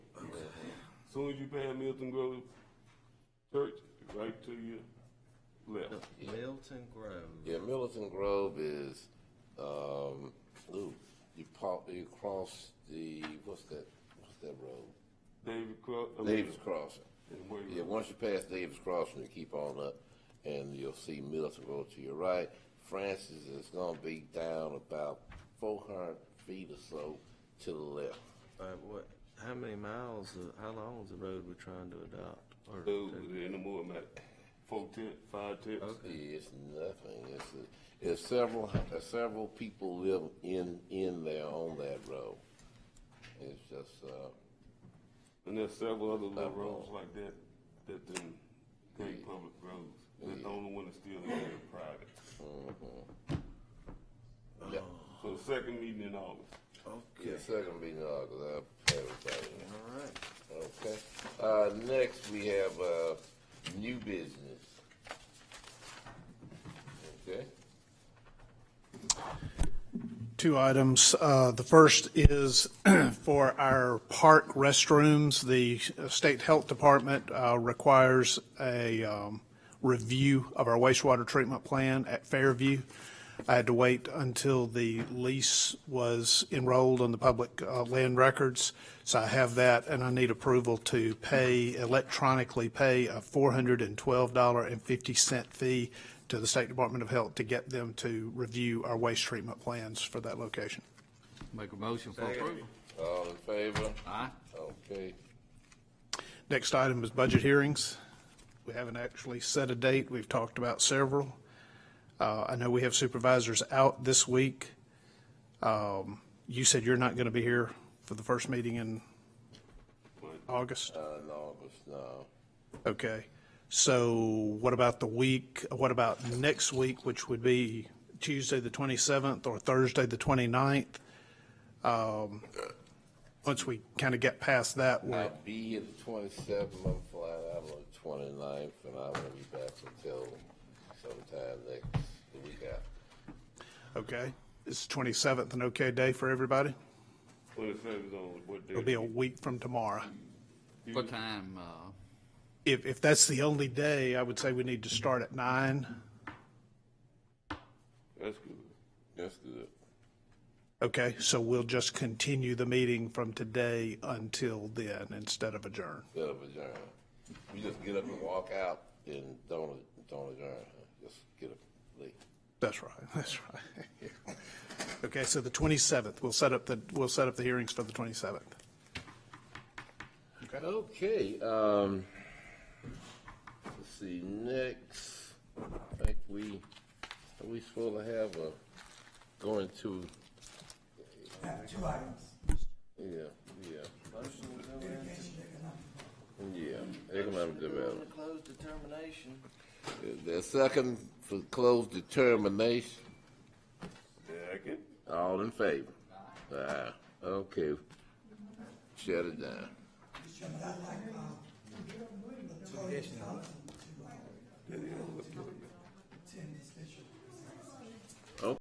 Soon as you pass Milton Grove Church, right to your left. Milton Grove. Yeah, Milton Grove is, um, ooh, you pop, you cross the, what's that, what's that road? David Cross. I mean, Davis Crossing. and where you- Yeah, once you pass Davis Crossing, you keep on up, and you'll see Milton Grove to your right. Francis is gonna be down about four hundred feet or so to the left. Uh, what, how many miles, uh, how long is the road we're trying to adopt? Or Dude, was there in the morning, about four tenths, five tenths. It's nothing, it's, it's several, uh, several people live in, in there on that road. It's just, uh, And there's several other little That road. roads like that, that them great public roads. That's the only one that's still in there private. mm-hmm. yeah, So the second meeting in August. yeah, Okay, second meeting, uh, cause I, everybody. all right. Okay. Uh, next, we have, uh, new business. Okay. two items. Uh, The first is for our park restrooms. The State Health Department uh, requires a um, review of our wastewater treatment plan at Fairview. I had to wait until the lease was enrolled on the public uh, land records, so I have that, and I need approval to pay, electronically pay a $412.50 fee to the State Department of Health to get them to review our waste treatment plans for that location. Make a motion for approval. All in favor? Aye. Okay. Next item is budget hearings. We haven't actually set a date. We've talked about several. Uh, I know we have supervisors out this week. Um, You said you're not going to be here for the first meeting in August? Uh, in August, no. Okay. So what about the week, what about next week, which would be Tuesday, the 27th, or Thursday, the 29th? Um, Once we kind of get past that, we're I'll be here the twenty-seventh, I'm flying out on the twenty-ninth, and I won't be back until sometime next, the week after. Okay. Is 27th an okay day for everybody? Twenty-seventh on what day? It'll be a week from tomorrow. What time, uh, If, if that's the only day, I would say we need to start at nine. That's good. That's good. Okay, so we'll just continue the meeting from today until then instead of adjourn. Instead of adjourn. You just get up and walk out and don't, don't adjourn, huh? just get up, leave. That's right, that's right. Yeah. Okay, so the 27th, we'll set up the, we'll set up the hearings for the 27th. Okay, um, let's see, next, I think we, are we supposed to have a, going to, Uh, Two items. yeah, yeah. Yeah, economic development. Close determination. The second for closed determination, Second. all in favor? Aye. Okay, shut it down. I'd like, uh, to get a million dollars to, uh,